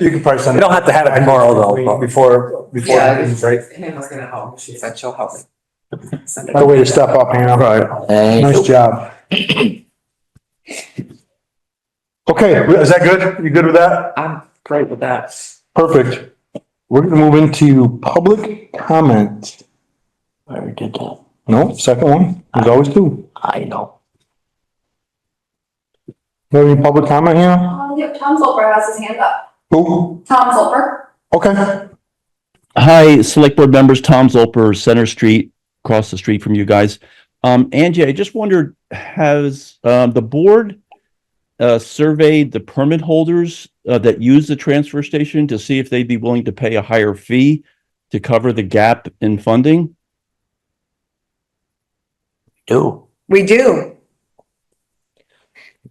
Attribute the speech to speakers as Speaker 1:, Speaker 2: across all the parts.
Speaker 1: You can probably send.
Speaker 2: We don't have to have it tomorrow, though.
Speaker 1: Before, before,
Speaker 3: Yeah.
Speaker 1: the meetings, right?
Speaker 3: Hannah's gonna help. She said she'll help me. Send it.
Speaker 1: By the way to step up, Hannah. Nice job. Okay, is that good? You good with that?
Speaker 3: I'm great with that.
Speaker 1: Perfect. We're gonna move into public comment.
Speaker 4: I already did that.
Speaker 1: No, second one, there's always two.
Speaker 4: I know.
Speaker 1: You have any public comment here?
Speaker 5: Um, yep, Tom Zolper has his hand up.
Speaker 1: Who?
Speaker 5: Tom Zolper?
Speaker 1: Okay,
Speaker 6: Hi, Select Board members, Tom Zolper, Center Street, across the street from you guys. Um, Angie, I just wondered, has, um, the board uh, surveyed the permit holders uh, that use the transfer station to see if they'd be willing to pay a higher fee to cover the gap in funding?
Speaker 4: Do.
Speaker 7: We do.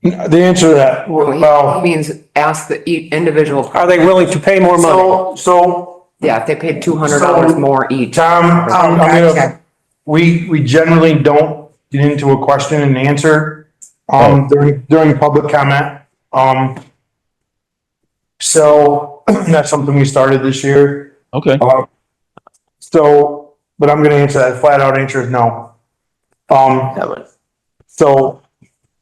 Speaker 1: the answer to that,
Speaker 3: Well,
Speaker 1: well,
Speaker 3: he means ask the each individual.
Speaker 2: Are they willing to pay more money?
Speaker 1: so, so,
Speaker 3: Yeah, if they paid two hundred dollars
Speaker 1: So-
Speaker 3: more each.
Speaker 1: Tom, I'm I'm gonna
Speaker 7: Oh, gotcha.
Speaker 1: We, we generally don't get into a question and answer, um, during, during public comment, um. So, that's something we started this year,
Speaker 6: Okay,
Speaker 1: um, so, but I'm gonna answer that, flat out answer is no. Um,
Speaker 4: That was-
Speaker 1: so,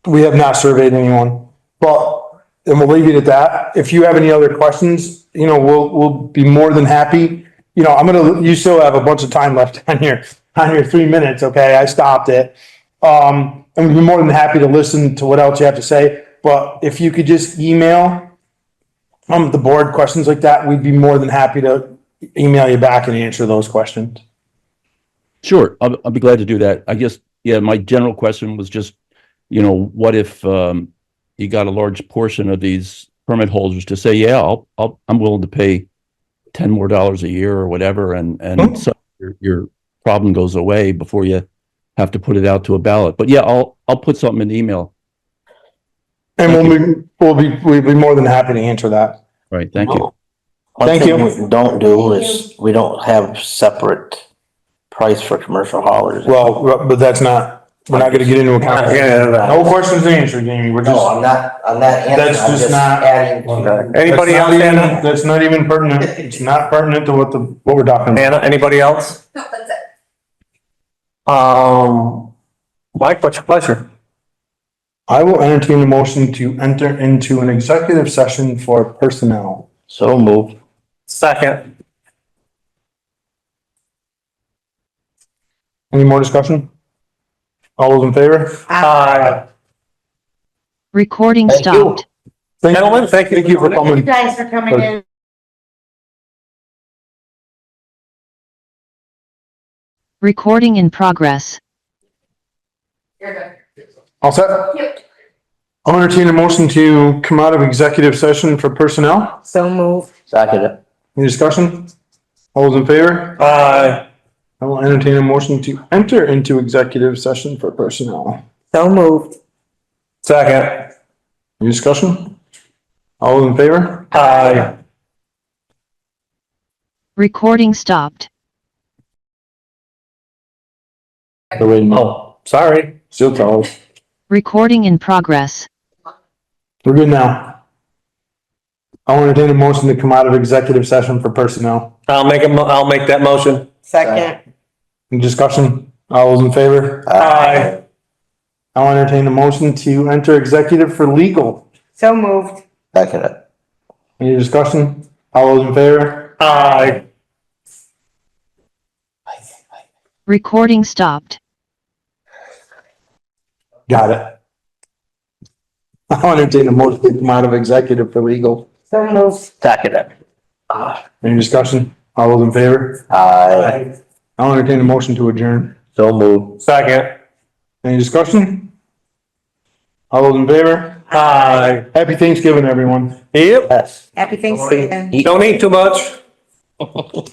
Speaker 1: we have not surveyed anyone, but, and we'll leave it at that, if you have any other questions, you know, we'll, we'll be more than happy. You know, I'm gonna, you still have a bunch of time left on your, on your three minutes, okay, I stopped it. Um, and we'd be more than happy to listen to what else you have to say, but if you could just email um, the board questions like that, we'd be more than happy to email you back and answer those questions.
Speaker 6: sure. I'll, I'll be glad to do that. I guess, yeah, my general question was just, you know, what if, um, you got a large portion of these permit holders to say, yeah, I'll, I'll, I'm willing to pay ten more dollars a year or whatever, and,
Speaker 1: Mhm.
Speaker 6: and so your, your problem goes away before you have to put it out to a ballot. But yeah, I'll, I'll put something in the email.
Speaker 1: And we'll be, we'll be, we'd be more than happy to answer that.
Speaker 6: Right, thank you.
Speaker 4: One
Speaker 1: Thank
Speaker 4: thing
Speaker 1: you.
Speaker 4: we Don't do is, we don't have separate price for commercial haulers.
Speaker 1: Well, but that's not, we're not gonna get into a conversation.
Speaker 4: No,
Speaker 1: No questions answered, Jamie, we're just.
Speaker 4: I'm not, I'm not
Speaker 1: That's
Speaker 4: answering, I'm
Speaker 1: just
Speaker 4: just
Speaker 1: not-
Speaker 4: adding. to-
Speaker 2: Anybody
Speaker 1: That's
Speaker 2: else,
Speaker 1: not even-
Speaker 2: Anna?
Speaker 1: That's not even pertinent, it's not pertinent to what the, what we're talking about.
Speaker 2: Anna, anybody else?
Speaker 5: No, Oh, that's it.
Speaker 4: Um,
Speaker 2: Mike, what's your pleasure?
Speaker 1: I will entertain a motion to enter into an executive session for personnel.
Speaker 4: so move.
Speaker 2: Second.
Speaker 1: Any more discussion? All those in favor?
Speaker 2: Hi,
Speaker 8: Recording
Speaker 4: Thank you.
Speaker 8: stopped.
Speaker 1: Thank you.
Speaker 2: gentlemen, thank you.
Speaker 1: Thank you for coming.
Speaker 8: Thanks for coming
Speaker 1: in.
Speaker 8: Recording in progress.
Speaker 5: You're good.
Speaker 1: All set?
Speaker 5: Yep.
Speaker 1: I'll entertain a motion to come out of executive session for personnel.
Speaker 7: So move.
Speaker 4: Second it.
Speaker 1: Any discussion? All those in favor?
Speaker 2: Hi,
Speaker 1: I will entertain a motion to enter into executive session for personnel.
Speaker 7: So moved.
Speaker 2: second.
Speaker 1: Any discussion? All those in favor?
Speaker 2: Hi.
Speaker 8: Recording stopped.
Speaker 2: Oh, sorry.
Speaker 1: Still closed.
Speaker 8: Recording in progress.
Speaker 1: We're good now. I will entertain a motion to come out of executive session for personnel.
Speaker 2: I'll make a mo- I'll make that motion.
Speaker 7: Second.
Speaker 1: Any discussion? All those in favor?
Speaker 2: Hi.
Speaker 1: I will entertain a motion to enter executive for legal.
Speaker 7: So moved.
Speaker 4: Second it.
Speaker 1: Any discussion? All those in favor?
Speaker 2: Aye.
Speaker 8: Recording stopped.
Speaker 1: Got it. I will entertain a motion to come out of executive for legal.
Speaker 7: So moved.
Speaker 4: Second it. Ah,
Speaker 1: Any discussion? All those in favor?
Speaker 4: Aye,
Speaker 1: I will entertain a motion to adjourn.
Speaker 4: so move.
Speaker 2: Second.
Speaker 1: Any discussion? All those in favor?
Speaker 2: Aye.
Speaker 1: Happy Thanksgiving, everyone.
Speaker 2: Yep.
Speaker 4: Yes.
Speaker 7: Happy Thanksgiving.
Speaker 2: Don't eat too much.